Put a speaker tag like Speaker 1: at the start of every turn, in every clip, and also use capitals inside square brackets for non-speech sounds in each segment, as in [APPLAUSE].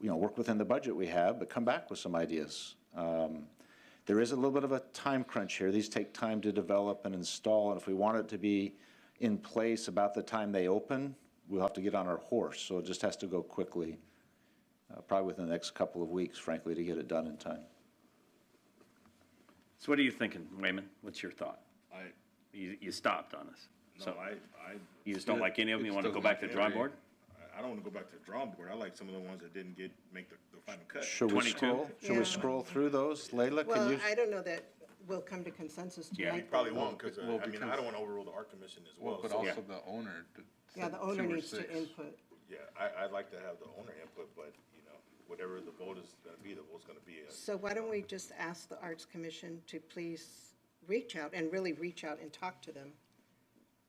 Speaker 1: you know, work within the budget we have, but come back with some ideas. Um, There is a little bit of a time crunch here. These take time to develop and install, and if we want it to be in place about the time they open, we'll have to get on our horse, so it just has to go quickly, uh, probably within the next couple of weeks, frankly, to get it done in time.
Speaker 2: So what are you thinking, Wayman? What's your thought?
Speaker 3: I,
Speaker 2: You, you stopped on us.
Speaker 3: no,
Speaker 2: So
Speaker 3: I, I.
Speaker 2: you just don't like any of them? You
Speaker 4: It's
Speaker 2: want to
Speaker 4: still
Speaker 2: go back to the drawing
Speaker 4: gonna
Speaker 2: board?
Speaker 4: be
Speaker 3: I- I don't wanna go back to the drawing board. I like some of the ones that didn't get, make the, the final cut.
Speaker 1: Should we
Speaker 2: 22?
Speaker 1: scroll, should
Speaker 5: Yeah.
Speaker 1: we scroll through those? Leila, can
Speaker 5: Well,
Speaker 1: you?
Speaker 5: I don't know that we'll come to consensus
Speaker 2: Yeah,
Speaker 5: tonight.
Speaker 2: we
Speaker 3: We probably won't, cause uh,
Speaker 4: Well,
Speaker 3: I mean, I
Speaker 4: because-
Speaker 3: don't wanna overrule the art commission as
Speaker 4: Well,
Speaker 3: well.
Speaker 4: but
Speaker 3: so-
Speaker 4: also the owner. d-
Speaker 5: Yeah, the
Speaker 4: said
Speaker 5: owner
Speaker 4: two or
Speaker 5: needs to
Speaker 4: six.
Speaker 5: input.
Speaker 3: Yeah, I, I'd like to have the owner input, but, you know, whatever the vote is gonna be, the vote's gonna be. uh,
Speaker 5: So why don't we just ask the Arts Commission to please reach out and really reach out and talk to them?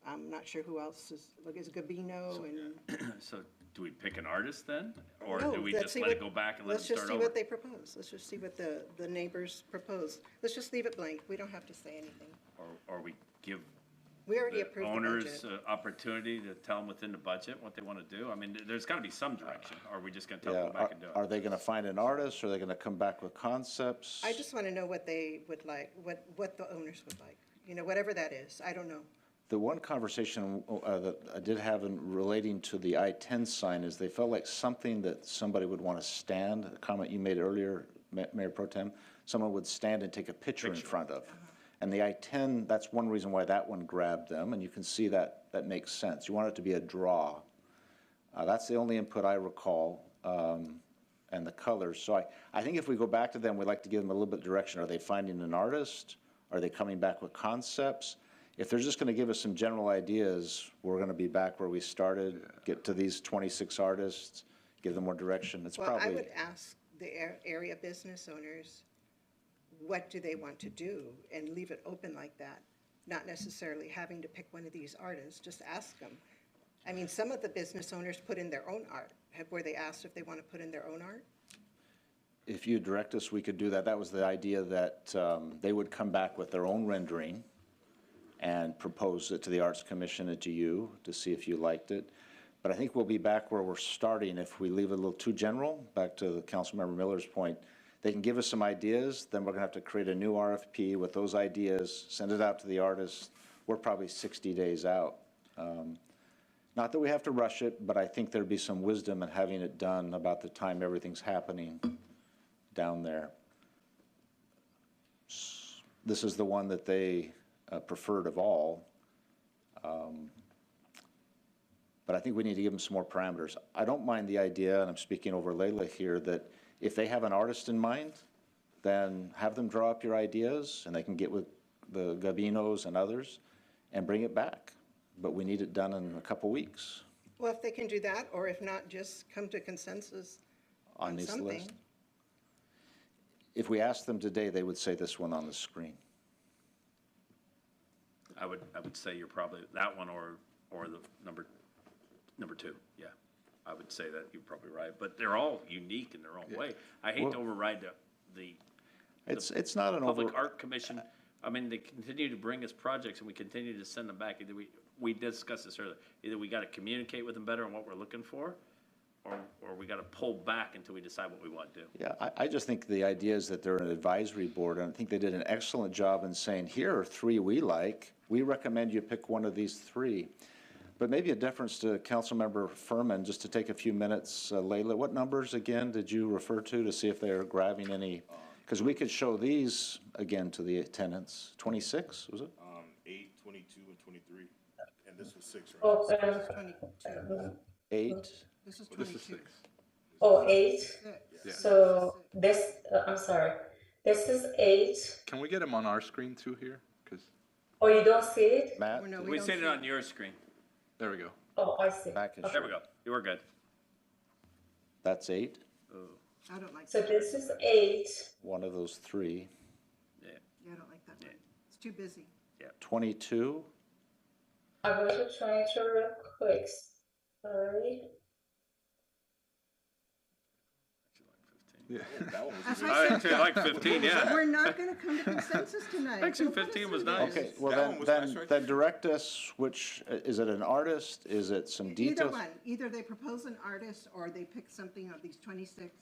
Speaker 5: I'm not sure who else is, like, is Gabino and.
Speaker 2: [CLEARS THROAT] So do we pick an artist then? Or
Speaker 5: No,
Speaker 2: do we
Speaker 5: let's
Speaker 2: just
Speaker 5: see
Speaker 2: let it
Speaker 5: what-
Speaker 2: go back and let it
Speaker 5: Let's just
Speaker 2: start
Speaker 5: see
Speaker 2: over?
Speaker 5: what they propose. Let's just see what the, the neighbors propose. Let's just leave it blank. We don't have to say anything.
Speaker 2: Or, or we give
Speaker 5: We already
Speaker 2: the
Speaker 5: approved the
Speaker 2: owners
Speaker 5: budget.
Speaker 2: uh, opportunity to tell them within the budget what they want to do? I mean, th- there's got to be some direction. Or are we just going to tell them
Speaker 1: Yeah,
Speaker 2: to go
Speaker 1: are-
Speaker 2: back and do
Speaker 1: are
Speaker 2: it?
Speaker 1: they gonna find an artist, are they gonna come back with concepts?
Speaker 5: I just want to know what they would like, what, what the owners would like. You know, whatever that is. I don't know.
Speaker 1: The one conversation uh, that I did have in relating to the I-10 sign is they felt like something that somebody would want to stand, a comment you made earlier, Ma- Mayor Pro Tem, someone would stand and take a picture in front of. And the I-10, that's one reason why that one grabbed them, and you can see that, that makes sense. You want it to be a draw. Uh, That's the only input I recall, um, and the colors. So I, I think if we go back to them, we'd like to give them a little bit of direction. Are they finding an artist? Are they coming back with concepts? If they're just going to give us some general ideas, we're going to be back where we started, get to these 26 artists, give them more direction. It's
Speaker 5: Well, I
Speaker 1: probably,
Speaker 5: would ask the ar- area business owners, what do they want to do? And leave it open like that, not necessarily having to pick one of these artists, just ask them. I mean, some of the business owners put in their own art. Have, were they asked if they want to put in their own art?
Speaker 1: if you direct us, we could do that. That was the idea that um, they would come back with their own rendering and propose it to the Arts Commission and to you to see if you liked it. But I think we'll be back where we're starting if we leave it a little too general, back to the Councilmember Miller's point. They can give us some ideas, then we're gonna have to create a new RFP with those ideas, send it out to the artists. We're probably sixty days out. Um, Not that we have to rush it, but I think there'd be some wisdom in having it done about the time everything's happening down there. This is the one that they uh, preferred of all. Um, But I think we need to give them some more parameters. I don't mind the idea, and I'm speaking over Leila here, that if they have an artist in mind, then have them draw up your ideas, and they can get with the Gabinos and others, and bring it back. But we need it done in a couple weeks
Speaker 5: Well, if they can do that, or if not, just come to consensus
Speaker 1: on
Speaker 5: on
Speaker 1: this
Speaker 5: something.
Speaker 1: list. If we asked them today, they would say this one on the screen.
Speaker 2: I would, I would say you're probably that one or, or the number, number two. Yeah. I would say that you're probably right, but they're all unique in their own way. I hate to override the, the
Speaker 1: It's, it's not an over.
Speaker 2: Public Art Commission, I mean, they continue to bring us projects and we continue to send them back. Either we, we discussed this earlier, either we gotta communicate with them better on what we're looking for, or, or we gotta pull back until we decide what we want to do.
Speaker 1: Yeah, I, I just think the idea is that they're an advisory board, and I think they did an excellent job in saying, here are three we like. We recommend you pick one of these three. But maybe a deference to Councilmember Furman, just to take a few minutes. Uh, Leila, what numbers again did you refer to to see if they are grabbing any? Because we could show these again to the tenants. Twenty-six, was it?
Speaker 3: Um, eight, twenty-two, and twenty-three, and this was six, right?
Speaker 6: Oh, uh,
Speaker 5: Twenty-two,
Speaker 1: Eight?
Speaker 5: this is
Speaker 4: This is
Speaker 5: twenty-two.
Speaker 4: six.
Speaker 6: oh, eight.
Speaker 5: Six.
Speaker 4: Yeah.
Speaker 6: So this, uh, I'm sorry. This is eight.
Speaker 4: Can we get him on our screen too here? Because,
Speaker 6: Oh, you don't see it?
Speaker 1: Matt?
Speaker 5: Well, no,
Speaker 2: We
Speaker 5: don't
Speaker 2: seen it
Speaker 5: see
Speaker 2: on your screen.
Speaker 4: there we go.
Speaker 6: Oh, I see.
Speaker 1: Back and
Speaker 6: Okay.
Speaker 2: There we go. You were good.
Speaker 1: That's eight,
Speaker 5: I don't like
Speaker 6: So
Speaker 5: that.
Speaker 6: this is eight.
Speaker 1: one of those three.
Speaker 2: Yeah,
Speaker 5: [LAUGHS] Yeah, I don't like that one. It's too busy.
Speaker 1: Twenty-two?
Speaker 6: I'm going to try to real quick. Sorry.
Speaker 4: Yeah.
Speaker 3: That one was
Speaker 5: That's
Speaker 3: good.
Speaker 5: what I
Speaker 2: I
Speaker 5: said.
Speaker 2: actually like fifteen, yeah.
Speaker 5: We're not gonna come to consensus tonight.
Speaker 2: Section
Speaker 5: Don't put us
Speaker 2: 15
Speaker 5: in
Speaker 2: was
Speaker 5: there.
Speaker 2: nice.
Speaker 1: Okay, well
Speaker 3: That one
Speaker 1: then,
Speaker 3: was nice,
Speaker 1: then,
Speaker 3: right?
Speaker 1: then direct us, which, is it an artist? Is it some
Speaker 5: Either
Speaker 1: details?
Speaker 5: one, either they propose an artist or they pick something of these twenty-six